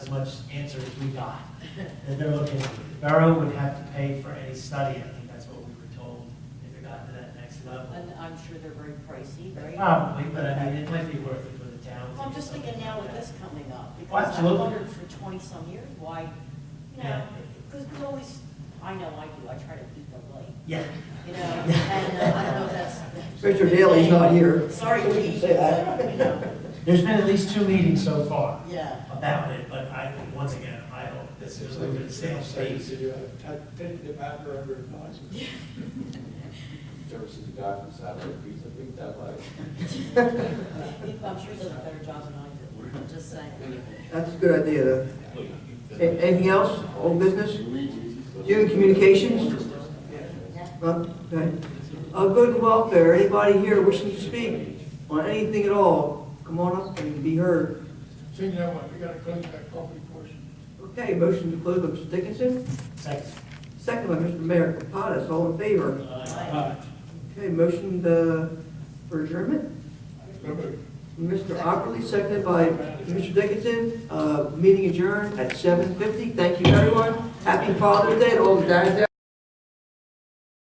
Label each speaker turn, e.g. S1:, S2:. S1: much answer as we got, that they're looking, Borough would have to pay for any study, I think that's what we were told, if it got to that next level.
S2: And I'm sure they're very pricey, right?
S3: Ah.
S1: Probably, but I mean, it might be worth it for the town.
S2: Well, I'm just thinking now with this coming up,
S1: Oh,
S2: because I
S1: absolutely.
S2: wondered for twenty-some years why, you know,
S1: Yeah.
S2: because we always, I know I do, I try to keep them light,
S1: Yeah,
S2: you know, and uh, I don't know if that's.
S3: Richard Daley's not here.
S2: Sorry,
S3: We
S2: Lee,
S3: can say that.
S2: but, you know,
S1: there's been at least two meetings so far
S2: yeah,
S1: about it, but I, once again, I hope this is a good sales space.
S4: you have taken the matter under advisement.
S5: Ever since you got from Saturday, pizza, think that like.
S2: I'm sure he does a better job than I do, I'm just saying.
S3: That's a good idea, though. A- Anything else, old business? Human communications? Well, okay. Uh, Good and welfare, anybody here wishing to speak on anything at all, come on up and be heard.
S4: Seeing that one, we gotta close that property portion.
S3: Okay, motion to close by Mr. Dickinson,
S1: Second.
S3: second by Mr. Mayor Kapadas, all in favor. Okay, motion uh, for adjournment,
S4: So moved.
S3: Mr. Ockley, seconded by Mr. Dickinson, Uh, meeting adjourned at 7:50. Thank you, everyone. Happy Father's Day to all the dads out